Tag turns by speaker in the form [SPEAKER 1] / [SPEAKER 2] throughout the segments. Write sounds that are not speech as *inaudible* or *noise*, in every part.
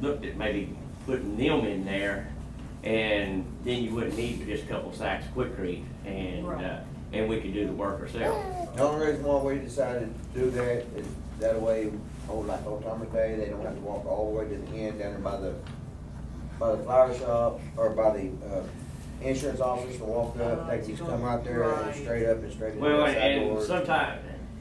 [SPEAKER 1] looked at maybe putting them in there, and then you wouldn't need but just a couple sacks of quickcrete, and, uh,
[SPEAKER 2] Right.
[SPEAKER 1] and we could do the work ourselves.
[SPEAKER 3] The only reason why we decided to do that is that way, on like old time day, they don't have to walk all the way to the end down there by the, by the flower shop or by the, uh, insurance office and walk up. They can just come out there and
[SPEAKER 2] Right.
[SPEAKER 3] straight up and straight into
[SPEAKER 1] Well,
[SPEAKER 3] the side
[SPEAKER 1] and
[SPEAKER 3] door.
[SPEAKER 1] sometimes,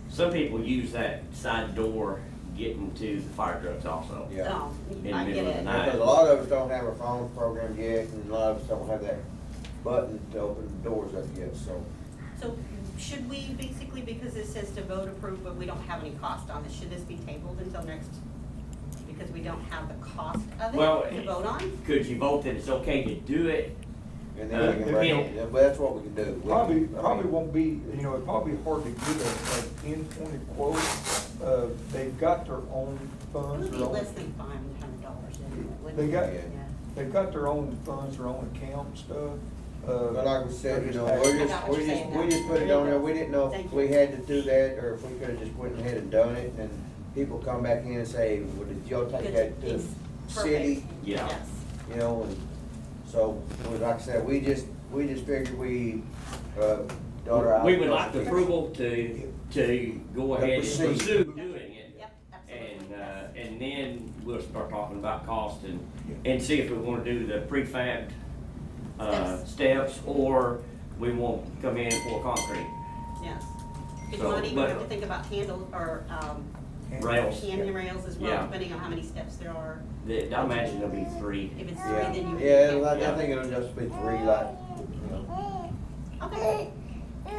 [SPEAKER 1] some people use that side door getting to the fire trucks also.
[SPEAKER 3] Yeah.
[SPEAKER 2] Oh,
[SPEAKER 1] In
[SPEAKER 2] I
[SPEAKER 1] the
[SPEAKER 2] get
[SPEAKER 1] middle of the
[SPEAKER 2] it.
[SPEAKER 1] night.
[SPEAKER 3] Because a lot of us don't have a phone program yet and a lot of us don't have that button to open the doors up yet, so.
[SPEAKER 2] So should we basically, because it says to vote approve, but we don't have any cost on it, should this be tabled until next? Because we don't have the cost of
[SPEAKER 1] Well,
[SPEAKER 2] it to vote on?
[SPEAKER 1] Could you vote that it's okay to do it?
[SPEAKER 3] And then we can,
[SPEAKER 1] Uh,
[SPEAKER 3] break
[SPEAKER 1] yeah.
[SPEAKER 3] it. Yeah, but that's what we can do. We can-
[SPEAKER 4] Probably,
[SPEAKER 3] I mean,
[SPEAKER 4] probably won't be, you know, it'd probably be hard to get a, an endpoint quote. Uh, they've got their own
[SPEAKER 2] It
[SPEAKER 4] funds,
[SPEAKER 2] would be
[SPEAKER 4] their own,
[SPEAKER 2] less than five hundred dollars, anyway, wouldn't it?
[SPEAKER 4] They got-
[SPEAKER 2] Yeah.
[SPEAKER 4] they've got their own funds, their own account and stuff. Uh,
[SPEAKER 3] But like we said, you know,
[SPEAKER 4] they're
[SPEAKER 3] we
[SPEAKER 2] I
[SPEAKER 3] just,
[SPEAKER 2] got what
[SPEAKER 3] we
[SPEAKER 2] you're
[SPEAKER 3] just,
[SPEAKER 2] saying
[SPEAKER 3] we
[SPEAKER 2] now.
[SPEAKER 3] just put it on there, we didn't know
[SPEAKER 2] Thank
[SPEAKER 3] if
[SPEAKER 2] you.
[SPEAKER 3] we had to do that, or if we could've just went ahead and done it, and people come back in and say, well, did y'all take
[SPEAKER 2] Good.
[SPEAKER 3] that to
[SPEAKER 2] It's
[SPEAKER 3] the city?
[SPEAKER 2] perfect.
[SPEAKER 1] Yeah.
[SPEAKER 2] Yes.
[SPEAKER 3] You know, and so, we- like I said, we just, we just figured we, uh, daughter out.
[SPEAKER 1] We would like the approval to, to go ahead and
[SPEAKER 3] Proceed.
[SPEAKER 1] pursue doing it.
[SPEAKER 2] Yep, absolutely.
[SPEAKER 1] And, uh,
[SPEAKER 2] yes.
[SPEAKER 1] and then we'll start talking about cost and,
[SPEAKER 4] Yeah.
[SPEAKER 1] and see if we wanna do the prefab, uh, steps, or we won't come in for concrete.
[SPEAKER 2] Yes. Because you
[SPEAKER 1] So,
[SPEAKER 2] might even
[SPEAKER 1] but-
[SPEAKER 2] have to think about handle, or, um,
[SPEAKER 1] Rails.
[SPEAKER 2] canyon rails as well,
[SPEAKER 1] Yeah.
[SPEAKER 2] depending on how many steps there are.
[SPEAKER 1] That, I imagine there'll be three.
[SPEAKER 2] If it's three,
[SPEAKER 3] Yeah,
[SPEAKER 2] then you would.
[SPEAKER 3] yeah, like,
[SPEAKER 1] Yeah.
[SPEAKER 3] I think it'll just be three, like, you know,
[SPEAKER 2] Okay,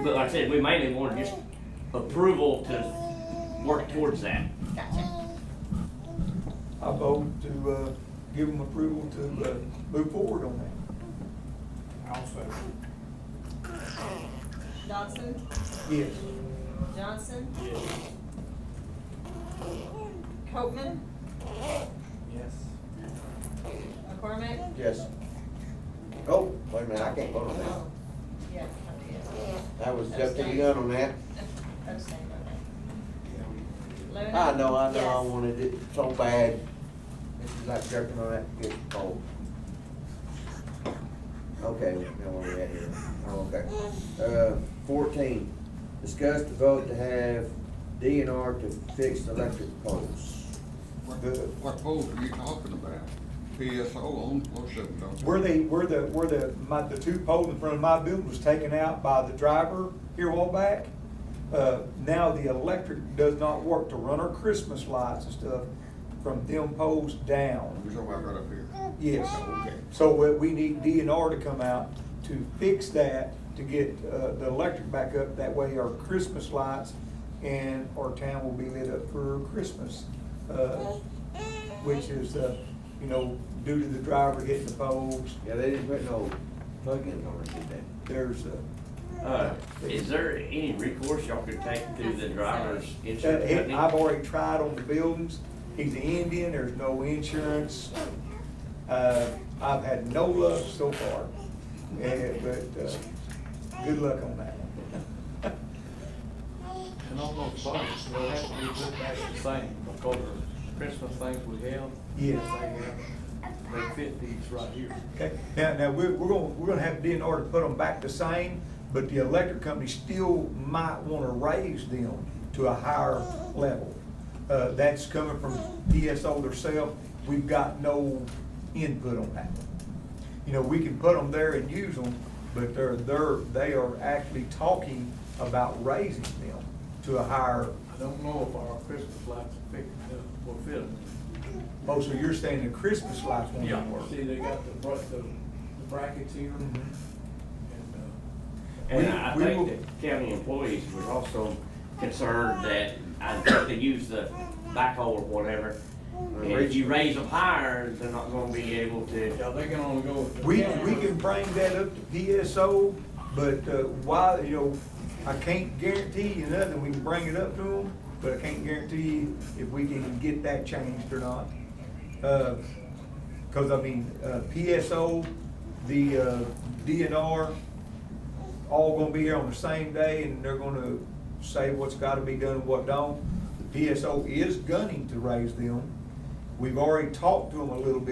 [SPEAKER 1] But like I said, we mainly want just approval to work towards that.
[SPEAKER 2] gotcha.
[SPEAKER 4] I vote to, uh, give them approval to, uh, move forward on that.
[SPEAKER 2] Dodson,
[SPEAKER 4] Yes.
[SPEAKER 2] Johnson? Copman? Yes. McCormick?
[SPEAKER 3] just, oh, wait a minute, I can't vote on
[SPEAKER 2] Oh,
[SPEAKER 3] that,
[SPEAKER 2] yes, okay.
[SPEAKER 3] that was up to the gun on that.
[SPEAKER 2] Abstain, okay. Lerna?
[SPEAKER 3] I know, I know, I
[SPEAKER 2] Yes.
[SPEAKER 3] wanted it so bad. This is like jerking on that good pole. Okay, now where we at here? Oh, okay. Uh, fourteen, discuss the vote to have DNR to fix electric poles.
[SPEAKER 5] What
[SPEAKER 4] The-
[SPEAKER 5] what poles are you talking about? PSO on four seven, don't you?
[SPEAKER 4] Where the, where the, where the, my, the two pole in front of my building was taken out by the driver here a while back. Uh, now the electric does not work to run our Christmas lights and stuff from them poles down.
[SPEAKER 5] You talking about right up here?
[SPEAKER 4] Yes.
[SPEAKER 5] Okay.
[SPEAKER 4] So we, we need DNR to come out to fix that, to get, uh, the electric back up. That way our Christmas lights and our town will be lit up for Christmas. Uh, which is, uh, you know, due to the driver hitting the poles,
[SPEAKER 3] Yeah, they didn't put no plug-ins on it, did they?
[SPEAKER 4] there's, uh,
[SPEAKER 1] Uh, is there any recourse y'all could take through the driver's
[SPEAKER 4] Uh,
[SPEAKER 1] insurance
[SPEAKER 4] it-
[SPEAKER 1] company?
[SPEAKER 4] I've already tried on the buildings, he's an Indian, there's no insurance. Uh, I've had no luck so far, and, but, uh, good luck on that one. *laughs*
[SPEAKER 6] And on those buses, they'll have to be put back the same, because the Christmas things we have,
[SPEAKER 4] Yes.
[SPEAKER 6] they fit these right here.
[SPEAKER 4] Okay, now, now, we're, we're gonna, we're gonna have DNR to put them back the same, but the electric company still might wanna raise them to a higher level. Uh, that's coming from DSO themselves, we've got no input on that. You know, we can put them there and use them, but they're, they're, they are actually talking about raising them to a higher,
[SPEAKER 6] I don't know if our Christmas lights are picking up or fitting.
[SPEAKER 4] oh, so you're saying the Christmas lights won't even work?
[SPEAKER 6] See, they got the bra, the the brackets here, and,
[SPEAKER 4] Mhm.
[SPEAKER 6] uh,
[SPEAKER 1] And
[SPEAKER 4] We-
[SPEAKER 1] I
[SPEAKER 4] we
[SPEAKER 1] think
[SPEAKER 4] will-
[SPEAKER 1] that county employees was also concerned that, I think they use the backhoe or whatever.
[SPEAKER 4] Uh,
[SPEAKER 1] And if you raise them higher, they're not gonna be able to,
[SPEAKER 6] yeah, they can only go with the.
[SPEAKER 4] We,
[SPEAKER 6] camera.
[SPEAKER 4] we can bring that up to DSO, but uh, why, you know, I can't guarantee you nothing, we can bring it up to them, but I can't guarantee you if we can get that changed or not. Uh, Cause I mean, uh, PSO, the uh, DNR, all gonna be here on the same day and they're gonna say what's gotta be done and what don't. The PSO is gunning to raise them. We've already talked to them a little bit.